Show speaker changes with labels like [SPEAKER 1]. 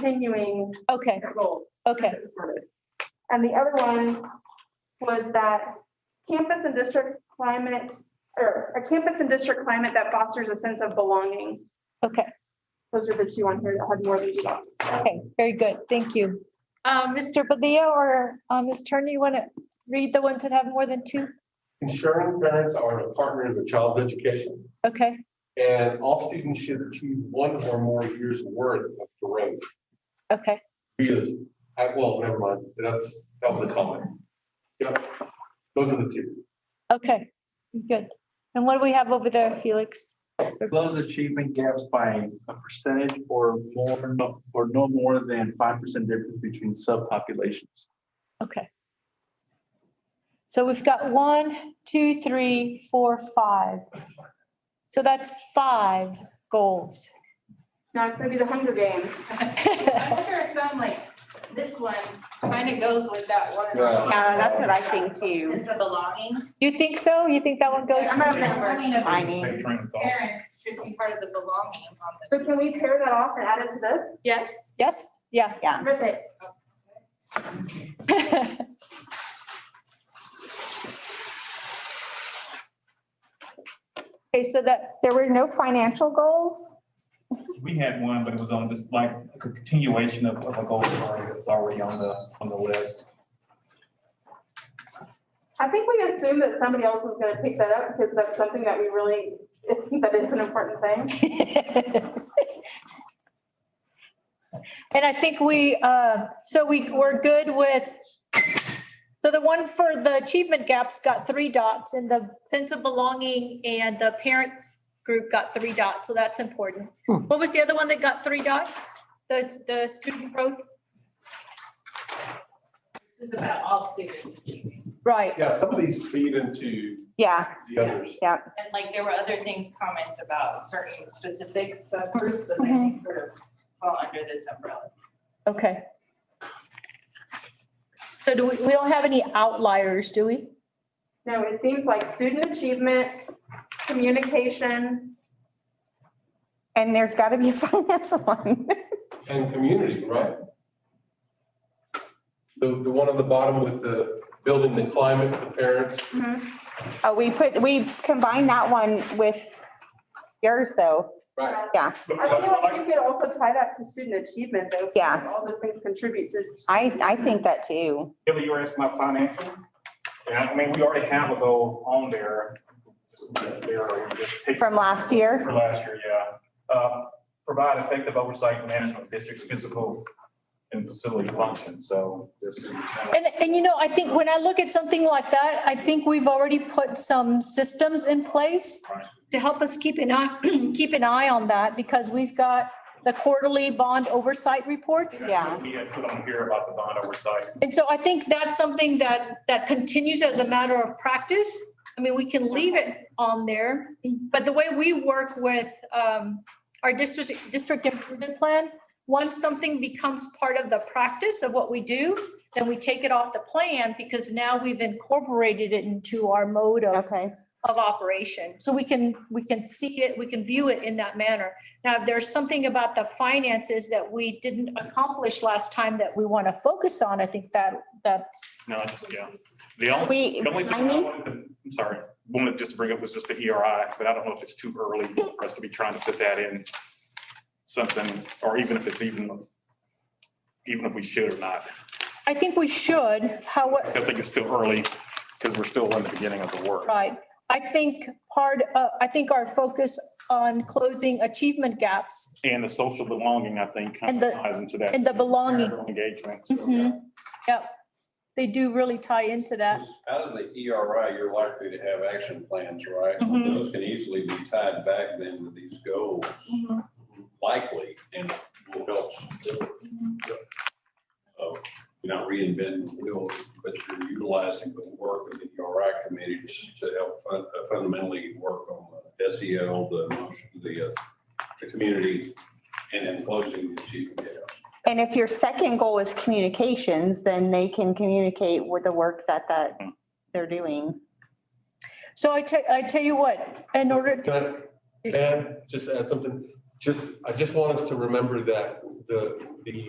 [SPEAKER 1] continuing
[SPEAKER 2] Okay,
[SPEAKER 1] that goal.
[SPEAKER 2] okay.
[SPEAKER 1] And the other one was that campus and district climate, or a campus and district climate that fosters a sense of belonging.
[SPEAKER 2] Okay,
[SPEAKER 1] Those are the two on here that had more than two dots.
[SPEAKER 2] okay, very good, thank you. Uh, Mr. Padilla or uh, Ms. Turner, you want to read the ones that have more than two?
[SPEAKER 3] Ensuring parents are a partner in their child's education,
[SPEAKER 2] Okay,
[SPEAKER 3] and all students should achieve one or more years' worth of growth.
[SPEAKER 2] okay,
[SPEAKER 3] Because, I, well, never mind, that's, that was a comment. Yep, those are the two.
[SPEAKER 2] okay, good. And what do we have over there, Felix?
[SPEAKER 4] Close achievement gaps by a percentage or more, no- or no more than five percent difference between subpopulations.
[SPEAKER 2] Okay. So we've got one, two, three, four, five. So that's five goals.
[SPEAKER 1] Now it's gonna be the Hunger Games.
[SPEAKER 5] I wonder if some like, this one kind of goes with that one.
[SPEAKER 4] Right.
[SPEAKER 6] Yeah, that's what I think too.
[SPEAKER 5] Sense of belonging.
[SPEAKER 2] You think so? You think that one goes?
[SPEAKER 6] I'm not gonna- I mean,
[SPEAKER 5] Parents should be part of the belonging on this.
[SPEAKER 1] So can we tear that off and add it to this?
[SPEAKER 5] Yes.
[SPEAKER 2] Yes, yeah.
[SPEAKER 6] yeah,
[SPEAKER 1] Rip it.
[SPEAKER 2] Okay, so that,
[SPEAKER 7] There were no financial goals?
[SPEAKER 8] We had one, but it was on just like a continuation of, of a goal that was already on the, on the list.
[SPEAKER 1] I think we assumed that somebody else was gonna pick that up because that's something that we really, that is an important thing.
[SPEAKER 2] And I think we, uh, so we, we're good with, so the one for the achievement gaps got three dots and the sense of belonging and the parent group got three dots, so that's important. What was the other one that got three dots? The, the student growth?
[SPEAKER 5] This is about all students achieving.
[SPEAKER 2] Right,
[SPEAKER 3] Yeah, some of these feed into
[SPEAKER 7] Yeah,
[SPEAKER 3] the others.
[SPEAKER 5] And like there were other things, comments about certain specific subgroups that I
[SPEAKER 6] Mm-hmm.
[SPEAKER 5] think sort of fall under this umbrella.
[SPEAKER 2] okay. So do we, we don't have any outliers, do we?
[SPEAKER 1] No, it seems like student achievement, communication,
[SPEAKER 7] and there's got to be a finance one.
[SPEAKER 3] And community, right? The, the one on the bottom with the building the climate for parents,
[SPEAKER 1] mm-hmm.
[SPEAKER 7] Oh, we put, we combined that one with yours though.
[SPEAKER 3] right?
[SPEAKER 7] Yeah,
[SPEAKER 1] I feel like you could also tie that to student achievement, though.
[SPEAKER 7] Yeah.
[SPEAKER 1] All those things contribute to.
[SPEAKER 7] I, I think that too.
[SPEAKER 8] Billy, you were asking about financial? Yeah, I mean, we already have a goal on there. Just there, just take-
[SPEAKER 7] From last year?
[SPEAKER 8] For last year, yeah. Uh, Provide effective oversight and management of district's physical and facility function, so this is.
[SPEAKER 2] And, and you know, I think when I look at something like that, I think we've already put some systems in place
[SPEAKER 8] Right.
[SPEAKER 2] to help us keep an eye, keep an eye on that because we've got the quarterly bond oversight reports.
[SPEAKER 7] Yeah.
[SPEAKER 8] We had put on here about the bond oversight.
[SPEAKER 2] And so I think that's something that, that continues as a matter of practice. I mean, we can leave it on there, but the way we work with um, our district, district improvement plan, once something becomes part of the practice of what we do, then we take it off the plan because now we've incorporated it into our mode of,
[SPEAKER 7] Okay,
[SPEAKER 2] of operation. So we can, we can see it, we can view it in that manner. Now, if there's something about the finances that we didn't accomplish last time that we want to focus on, I think that, that's,
[SPEAKER 8] No, it's, yeah. The only.
[SPEAKER 7] we,
[SPEAKER 8] The only thing
[SPEAKER 7] I
[SPEAKER 8] I
[SPEAKER 7] mean,
[SPEAKER 8] wanted to, I'm sorry, wanted just to bring up was just the ERI, but I don't know if it's too early for us to be trying to put that in something, or even if it's even, even if we should or not.
[SPEAKER 2] I think we should,
[SPEAKER 8] I
[SPEAKER 2] however,
[SPEAKER 8] still think it's still early because we're still in the beginning of the work.
[SPEAKER 2] right. I think part, uh, I think our focus on closing achievement gaps
[SPEAKER 8] And the social belonging, I think, kind
[SPEAKER 2] And the-
[SPEAKER 8] of ties into that.
[SPEAKER 2] and the belonging,
[SPEAKER 8] Engagement. so, yeah.
[SPEAKER 2] Mhm. yep, they do really tie into that.
[SPEAKER 9] Out of the
[SPEAKER 3] E
[SPEAKER 9] ERI, you're likely to have action plans, right?
[SPEAKER 3] Mm-hmm.
[SPEAKER 2] Mhm.
[SPEAKER 9] Those can easily be tied back then to these goals, likely, and will help. still. So you're not reinventing the wheel, but you're utilizing the work of the E ERI committee to s- to help fun- uh, fundamentally work on the SEL, the emotion, the, uh, the community, and then closing the achievement gaps.
[SPEAKER 7] and if your second goal is communications, then they can communicate with the work that, that they're doing.
[SPEAKER 2] So I tell, I tell you what, in order,
[SPEAKER 3] Can I, can I just add something? Ju- Just, I just want us to remember that the, the